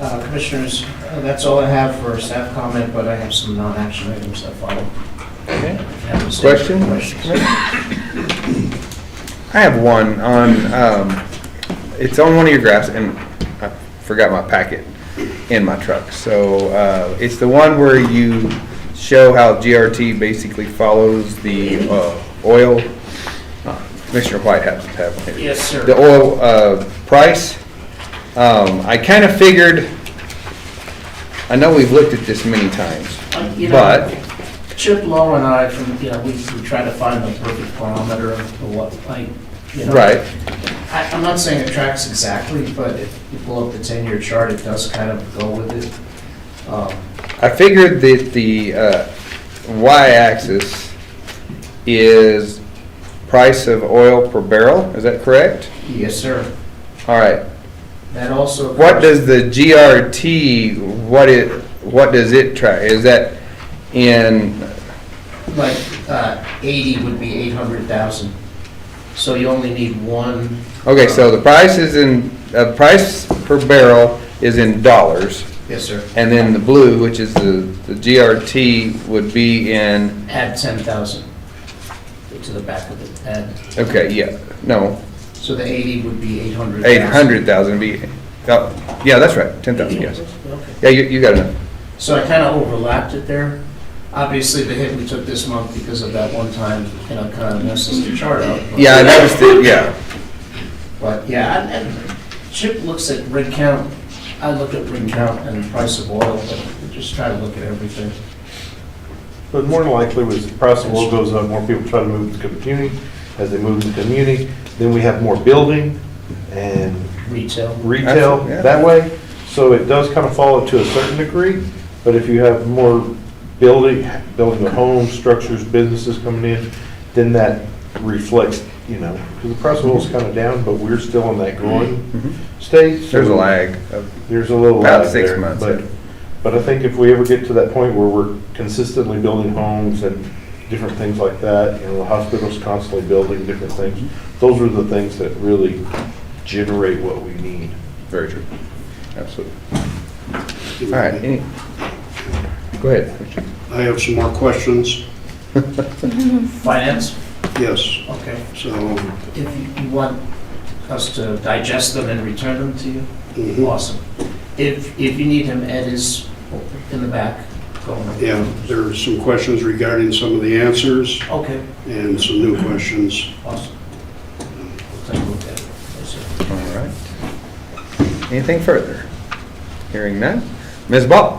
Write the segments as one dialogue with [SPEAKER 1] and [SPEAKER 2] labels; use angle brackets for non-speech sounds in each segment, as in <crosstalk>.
[SPEAKER 1] Uh, Commissioners, uh, that's all I have for staff comment, but I have some non-action items that follow.
[SPEAKER 2] Question?
[SPEAKER 1] Questions?
[SPEAKER 2] I have one on, um, it's on one of your graphs, and I forgot my packet in my truck. So, uh, it's the one where you show how GRT basically follows the, uh, oil. Commissioner White has to have one here.
[SPEAKER 1] Yes, sir.
[SPEAKER 2] the oil uh, price. Um, I kind of figured, I know we've looked at this many times,
[SPEAKER 1] Uh, you know-
[SPEAKER 2] but,
[SPEAKER 1] Chip Lowe and I, from, you know, we we try to find the perfect barometer of what, like, you know.
[SPEAKER 2] right,
[SPEAKER 1] I- I'm not saying it tracks exactly, but if you pull up the 10-year chart, it does kind of go with it. Um,
[SPEAKER 2] I figured that the uh, y-axis is price of oil per barrel, is that correct?
[SPEAKER 1] Yes, sir.
[SPEAKER 2] All right,
[SPEAKER 1] That also.
[SPEAKER 2] what does the GRT, what it, what does it track? Is that in,
[SPEAKER 1] Like, uh, 80 would be 800,000. So you only need one.
[SPEAKER 2] okay, so the price is in, uh, price per barrel is in dollars.
[SPEAKER 1] Yes, sir.
[SPEAKER 2] And then the blue, which is the, the GRT, would be in,
[SPEAKER 1] Add 10,000 to the back of it, add.
[SPEAKER 2] okay, yeah, no,
[SPEAKER 1] So the 80 would be 800,000.
[SPEAKER 2] eight hundred thousand be, oh, yeah, that's right, ten thousand, yes.
[SPEAKER 1] Okay.
[SPEAKER 2] Yeah, you, you got enough.
[SPEAKER 1] So I kind of overlapped it there. Obviously, the hit we took this month because of that one time, you know, kind of messes the chart up. but-
[SPEAKER 2] Yeah, I noticed it, yeah,
[SPEAKER 1] But, yeah, and- and Chip looks at rig count, I look at rig count and price of oil, but we just try to look at everything.
[SPEAKER 3] But more than likely, as the price of oil goes up, more people try to move to the community. As they move to the community, then we have more building and
[SPEAKER 1] Retail,
[SPEAKER 3] retail
[SPEAKER 2] Absolutely, yeah.
[SPEAKER 3] that way. So it does kind of follow to a certain degree, but if you have more building, building of homes, structures, businesses coming in, then that reflects, you know, because the price of oil is kind of down, but we're still in that growing state. so
[SPEAKER 2] Mm-hmm. there's a lag Uh, of,
[SPEAKER 3] There's a little
[SPEAKER 2] About
[SPEAKER 3] lag
[SPEAKER 2] six
[SPEAKER 3] there,
[SPEAKER 2] months,
[SPEAKER 3] But,
[SPEAKER 2] yeah.
[SPEAKER 3] but I think if we ever get to that point where we're consistently building homes and different things like that, you know, the hospital's constantly building different things, those are the things that really generate what we need.
[SPEAKER 2] very true, absolutely. All right, any, go ahead.
[SPEAKER 4] I have some more questions.
[SPEAKER 1] finance,
[SPEAKER 4] Yes,
[SPEAKER 1] okay.
[SPEAKER 4] so,
[SPEAKER 1] If you want us to digest them and return them to you,
[SPEAKER 4] mhm.
[SPEAKER 1] Awesome. If, if you need him, Ed is in the back going over.
[SPEAKER 4] yeah, there are some questions regarding some of the answers
[SPEAKER 1] Okay,
[SPEAKER 4] and some new questions.
[SPEAKER 1] awesome. We'll take a look at it. Yes, sir.
[SPEAKER 2] All right. Anything further? Hearing none. Ms. Ball?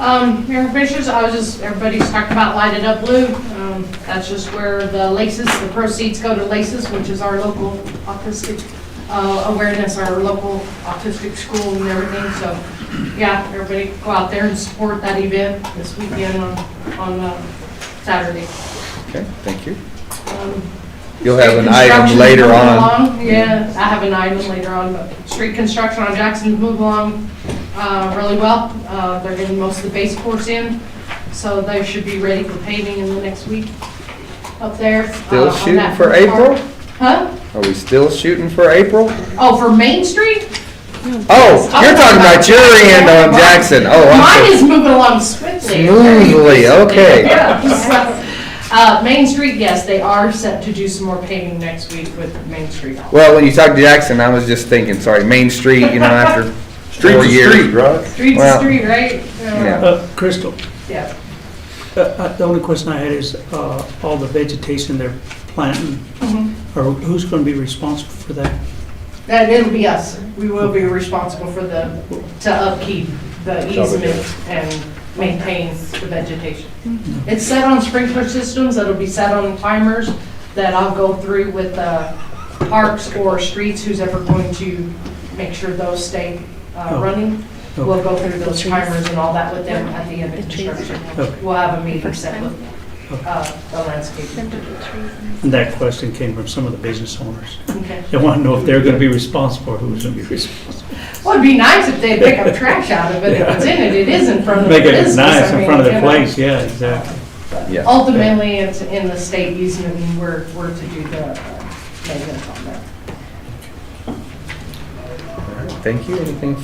[SPEAKER 5] Um, Mayor Fisher's, I was just, everybody's talked about lighted up blue. Um, that's just where the laces, the proceeds go to laces, which is our local autistic, uh, awareness, our local autistic school and everything. So, yeah, everybody go out there and support that event this weekend on, on uh, Saturday.
[SPEAKER 2] Okay, thank you.
[SPEAKER 5] Um,
[SPEAKER 2] You'll have an
[SPEAKER 5] Street
[SPEAKER 2] item
[SPEAKER 5] construction's
[SPEAKER 2] later
[SPEAKER 5] moving
[SPEAKER 2] on.
[SPEAKER 5] along. uh, Yeah, I have an item later on, but street construction on Jackson's moved along uh, really well. Uh, They're getting most of the base course in, so they should be ready for paving in the next week up there. uh,
[SPEAKER 2] Still
[SPEAKER 5] on
[SPEAKER 2] shooting
[SPEAKER 5] that
[SPEAKER 2] for
[SPEAKER 5] front part.
[SPEAKER 2] April?
[SPEAKER 5] Huh?
[SPEAKER 2] Are we still shooting for April?
[SPEAKER 5] Oh, for Main Street?
[SPEAKER 2] Oh, you're talking about your end on Jackson. Oh,
[SPEAKER 5] Mine
[SPEAKER 2] I'm
[SPEAKER 5] is
[SPEAKER 2] so
[SPEAKER 5] moving along swiftly.
[SPEAKER 2] smoothly.
[SPEAKER 5] <laughs>
[SPEAKER 2] Okay.
[SPEAKER 5] Yeah, so, uh, Main Street, yes, they are set to do some more paving next week with Main Street.
[SPEAKER 2] Well, when you talked to Jackson, I was just thinking, sorry, Main Street, you know, after four
[SPEAKER 3] Street,
[SPEAKER 2] years.
[SPEAKER 3] right?
[SPEAKER 5] Street's a
[SPEAKER 2] Well-
[SPEAKER 5] street, right?
[SPEAKER 2] Yeah.
[SPEAKER 6] Uh, Crystal,
[SPEAKER 5] Yeah.
[SPEAKER 6] uh, uh, the only question I had is, uh, all the vegetation they're planting,
[SPEAKER 5] Mm-hmm.
[SPEAKER 6] or who's going to be responsible for that?
[SPEAKER 5] That, it'll be us. We will be responsible for the, to upkeep the easement and maintain the vegetation. It's set on sprinkler systems, it'll be set on timers that I'll go through with uh, parks or streets, who's ever going to make sure those stay uh,
[SPEAKER 6] Oh.
[SPEAKER 5] running. We'll
[SPEAKER 6] Okay.
[SPEAKER 5] go through those timers and all that with them at the end of construction.
[SPEAKER 6] Okay.
[SPEAKER 5] We'll have a meeting set with uh, the landscape.
[SPEAKER 6] And that question came from some of the business owners.
[SPEAKER 5] Okay.
[SPEAKER 6] They want to know if they're going to be responsible, or who's going to be <laughs> responsible.
[SPEAKER 5] Well, it'd be nice if they'd pick
[SPEAKER 6] <laughs>
[SPEAKER 5] up trash out of it, if it's in it, it is in front of the
[SPEAKER 6] Make it
[SPEAKER 5] business.
[SPEAKER 6] nice
[SPEAKER 5] I
[SPEAKER 6] in
[SPEAKER 5] mean,
[SPEAKER 6] front of
[SPEAKER 5] you
[SPEAKER 6] the
[SPEAKER 5] know.
[SPEAKER 6] place, yeah, exactly.
[SPEAKER 2] Yeah.
[SPEAKER 5] Oh. Ultimately, it's in the state easement, and we're, we're to do the uh, maintenance on that.
[SPEAKER 2] Thank you. Anything